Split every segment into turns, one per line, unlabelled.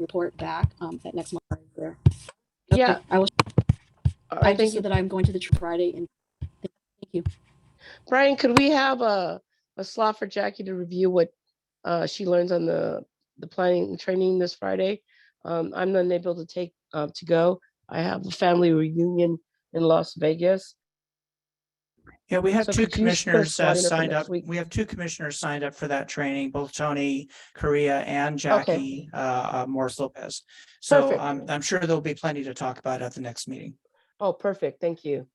report back um, at next month. There.
Yeah,
Okay, I will,
I
I just
think,
said that I'm going to the tr- Friday and
Brian, could we have a, a slot for Jackie to review what uh, she learns on the, the planning training this Friday? Um, I'm unable to take, uh, to go. I have a family reunion in Las Vegas.
Yeah, we have
So
two
could you just put a
commissioners
slide
uh,
in for
signed
next
up.
week?
We have two commissioners signed up for that training, both Tony Korea and Jackie uh, uh, Morris Lopez. So
Perfect.
I'm, I'm sure there'll be plenty to talk about at the next meeting.
Oh, perfect. Thank you.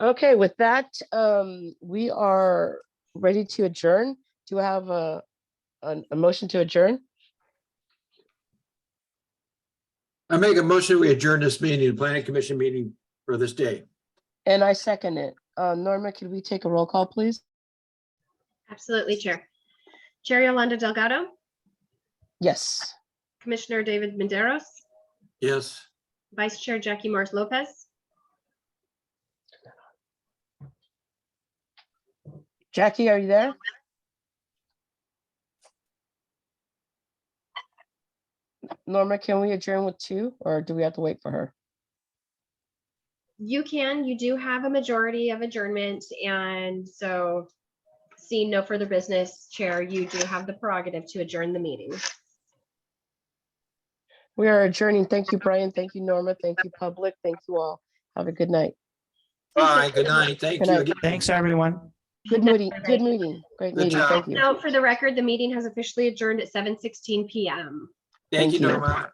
Okay, with that, um, we are ready to adjourn. Do I have a, an- a motion to adjourn?
I make a motion, we adjourn this meeting, the planning commission meeting for this day.
And I second it. Uh, Norma, could we take a roll call, please?
Absolutely, Chair. Chair Yolanda Delgado,
Yes.
Commissioner David Maderos,
Yes.
Vice Chair Jackie Morris Lopez,
Jackie, are you there? Norma, can we adjourn with two or do we have to wait for her?
you can, you do have a majority of adjournment, and so seeing no further business, Chair, you do have the prerogative to adjourn the meeting.
We are adjourning. Thank you, Brian. Thank you, Norma. Thank you, public. Thank you all. Have a good night.
Bye, good night, thank
Good
you.
night.
again.
Thanks, everyone.
Good meeting, good
Great.
meeting, great
Good
meeting.
job.
Thank you.
Now, for the record, the meeting has officially adjourned at 7:16 PM.
Thank you,
Thank you.
Norma.